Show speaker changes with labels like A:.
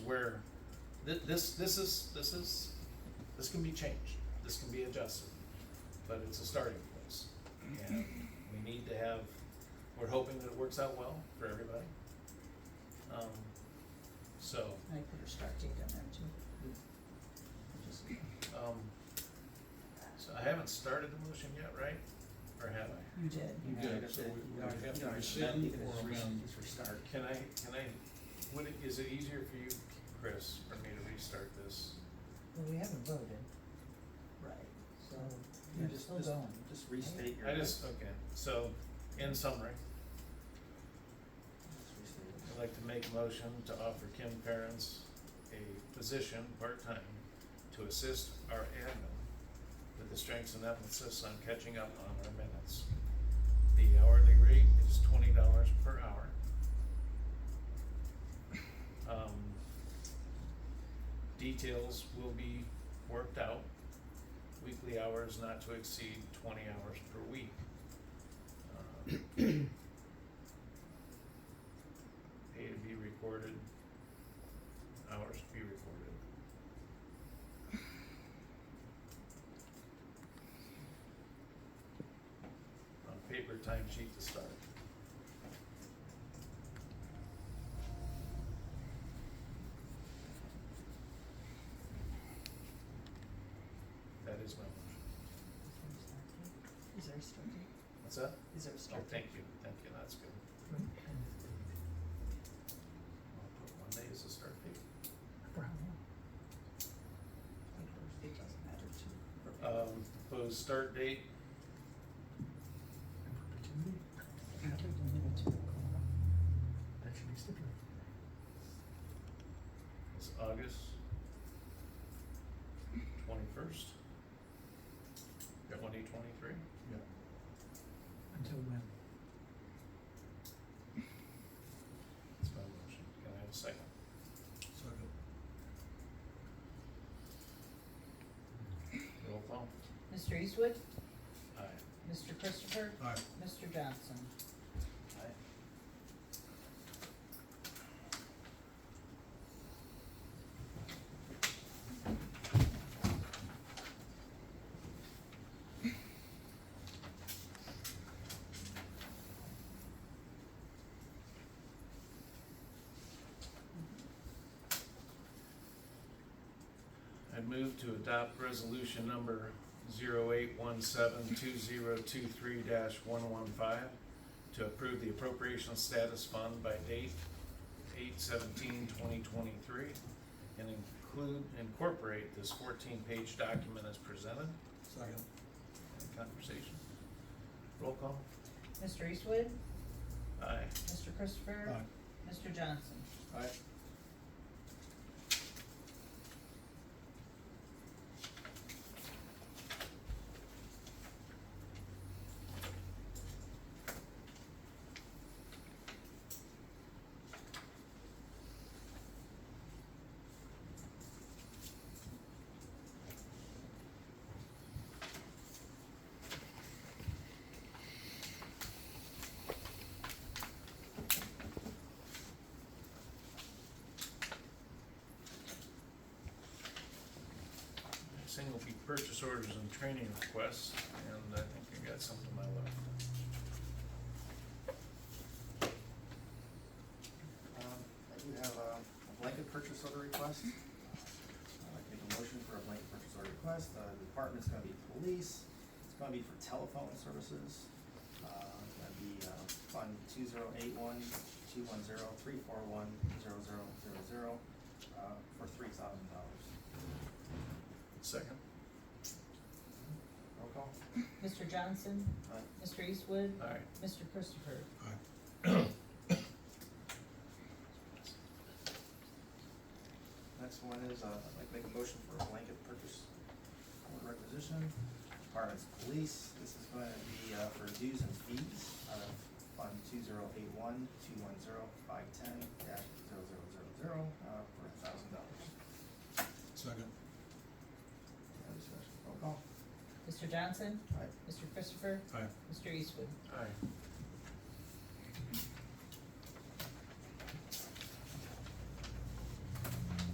A: where thi- this, this is, this is, this can be changed, this can be adjusted, but it's a starting place. And we need to have, we're hoping that it works out well for everybody. Um, so,
B: I put a start date on there too. Just-
A: um, so I haven't started the motion yet, right? Or have I?
B: You did.
C: You did, so we we would have to rescind or amend.
B: restart.
A: Can I, can I, would it, is it easier for you, Chris, for me to restart this?
B: Well, we haven't voted. Right. So,
D: Yeah,
B: you're
D: just-
B: still
D: just-
B: going.
D: Just restate your.
A: I just, okay, so, in summary,
D: Just restate it.
C: uh,
A: I'd like to make a motion to offer Kim Parents a position, part-time, to assist our admin with the strengths and emphasis on catching up on our minutes. The hourly rate is twenty dollars per hour. Um, details will be worked out. Weekly hours not to exceed twenty hours per week. Uh, pay to be recorded, hours to be recorded. On paper timesheet to start. That is my motion.
B: Is there a start date?
A: What's that?
B: Is there a
A: Oh,
B: start
A: thank
B: date?
A: you, thank you, that's good. I'll put one day as a start date.
B: It doesn't matter to.
A: Um, proposed start date,
C: That should be stipulated.
A: It's August twenty-first, twenty twenty-three.
C: Yeah. Until when?
A: That's my motion. Can I have a second?
C: Second.
A: Roll call.
B: Mr. Eastwood,
A: Aye.
B: Mr. Christopher,
C: Aye.
B: Mr. Johnson.
A: I move to adopt resolution number zero eight one seven two zero two three dash one one five to approve the appropriation status fund by date eight seventeen twenty twenty-three and include, incorporate this fourteen-page document as presented.
C: Second.
A: Any Conversation. Roll call.
B: Mr. Eastwood,
A: Aye.
B: Mr. Christopher, Mr. Johnson.
C: Aye.
A: Next thing will be purchase orders and training requests, and I think I got some to my left.
D: Um, I do have uh, a blanket purchase order request. I'd like to make a motion for a blanket purchase order request. Uh, The department's gonna be police, it's gonna be for telephone services. Uh, It's gonna be uh, fund two zero eight one, two one zero, three four one, zero zero zero zero, uh, for three thousand dollars.
A: Second?
D: Roll call?
B: Mr. Johnson,
D: Aye.
B: Mr. Eastwood,
A: Aye.
B: Mr. Christopher.
D: Next one is, uh, I'd like to make a motion for a blanket purchase order requisition. Department's police, this is gonna be, uh, for dues and fees out of fund two zero eight one, two one zero, five ten, dash, zero zero zero zero, uh, for a thousand dollars.
C: Second.
D: Any discussion? Roll call.
B: Mr. Johnson,
D: Aye.
B: Mr. Christopher,
C: Aye.
B: Mr. Eastwood.
A: Aye.